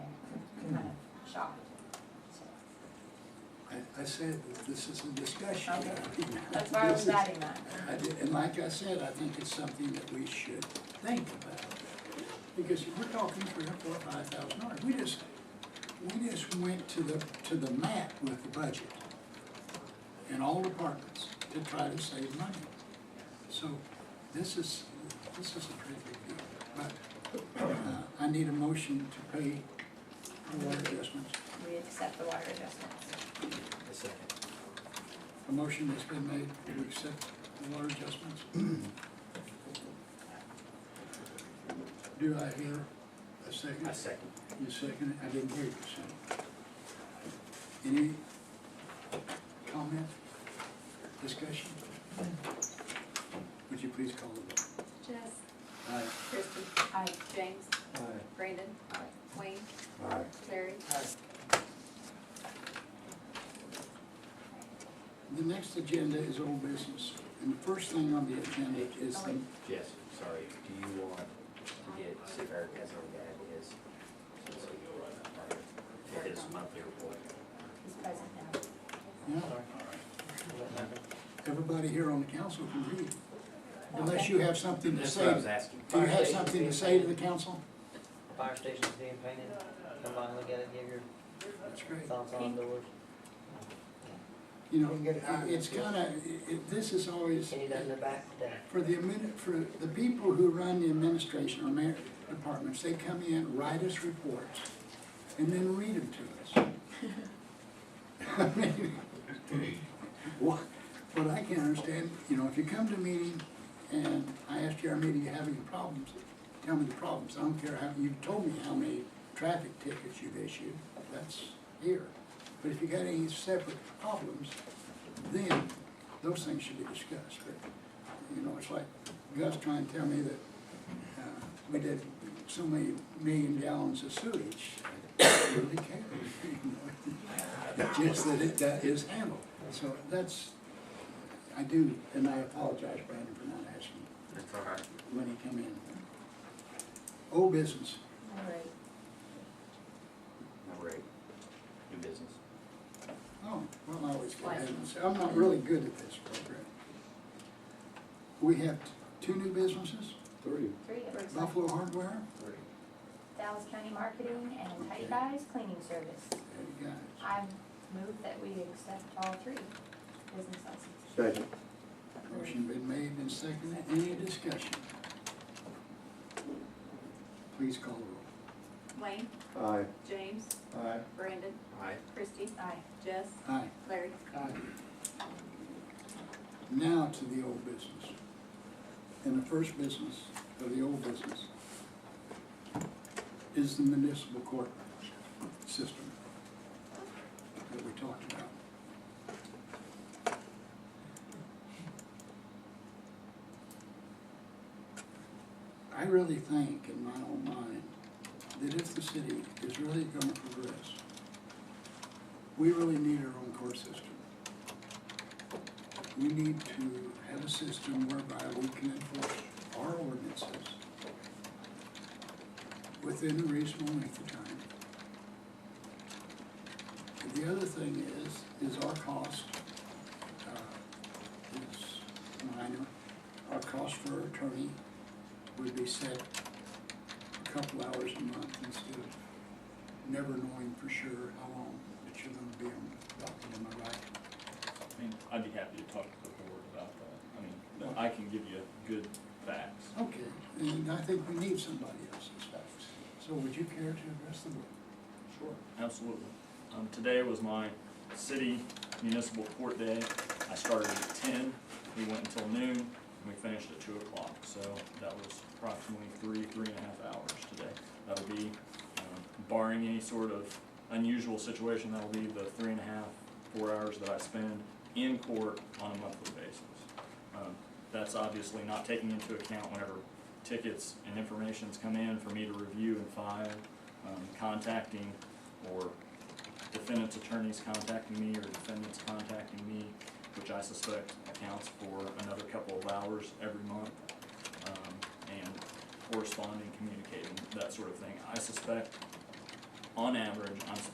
shocked. I, I said that this is a discussion. Okay. That's why I was This is- adding that. I did- And like I said, I think it's something that we should think about. Because if we're talking three or four, five thousand dollars, we just, we just went to the, to the mat with the budget in all departments to try to save money. So this is, this is a pretty big deal. But uh, I need a motion to pay for water adjustments. We accept the water adjustments. A second. A motion has been made to accept the water adjustments. Do I hear a second? A second. You second it? I didn't hear you second. Any comment, discussion? Would you please call the vote? Jess, Aye. Kristen. Aye. James. Brandon. Wayne. Larry. The next agenda is old business, and the first thing on the agenda is the, Yes, sorry, do you want to get, see if Eric has already had his, since he, or his monthly report? He's present now. yeah, everybody here on the council can read. Unless you have something to That's what I say was asking. Do you have something to say to the council? Fire station's being painted, come by and look at it, give your That's great. thoughts on the work. You know, it- it's kind of, it, this is always, Can you do that in the back today? for the, admin- for the people who run the administration or mayor departments, they come in, write us reports, and then read them to us. I mean, What, what I can't understand, you know, if you come to a meeting and I ask you, are meeting, you having problems? Tell me the problems. I don't care how, you told me how many traffic tickets you've issued, that's here. But if you got any separate problems, then those things should be discussed. But, you know, it's like Gus trying to tell me that, uh, we did so many million gallons of sewage. I Really care, you know? Just that it, that is handled. So that's, I do, and I apologize, Brandon, for not asking That's all right. when he come in. Old business, All right. Number eight, new business. oh, well, I always get ahead of myself. I'm not really good at this program. We have t- two new businesses, Three. Three, it looks like. Buffalo Hardware Dallas County Marketing and Tidy Guys Cleaning Service. and Guys. I move that we accept all three business licenses. Second. Motion been made and seconded, any discussion? Please call the roll. Wayne. Aye. James. Aye. Brandon. Aye. Christie. Aye. Jess. Aye. Larry. Now to the old business. And the first business of the old business is the municipal court system that we talked about. I really think in my own mind that if the city is really gonna progress, we really need our own court system we need to have a system whereby we can enforce our ordinances within a reasonable length of time. And the other thing is, is our cost, uh, is minor. Our cost for attorney would be set a couple hours a month instead of never knowing for sure how long that you're gonna be on the docket, am I right? I mean, I'd be happy to talk to the board about that. I mean, but I can give you good facts. Okay, and I think we need somebody else's facts. So would you care to address the board? Sure. Absolutely. Um, today was my city municipal court day. I started at ten, we went until noon, and we finished at two o'clock. So that was approximately three, three and a half hours today. That'll be, um, barring any sort of unusual situation, that'll be the three and a half, four hours that I spend in court on a monthly basis. Um, that's obviously not taking into account whenever tickets and informations come in for me to review and file, um, contacting or defendant's attorneys contacting me or defendants contacting me, which I suspect accounts for another couple of hours every month, um, and corresponding, communicating, that sort of thing. I suspect, on average, I'm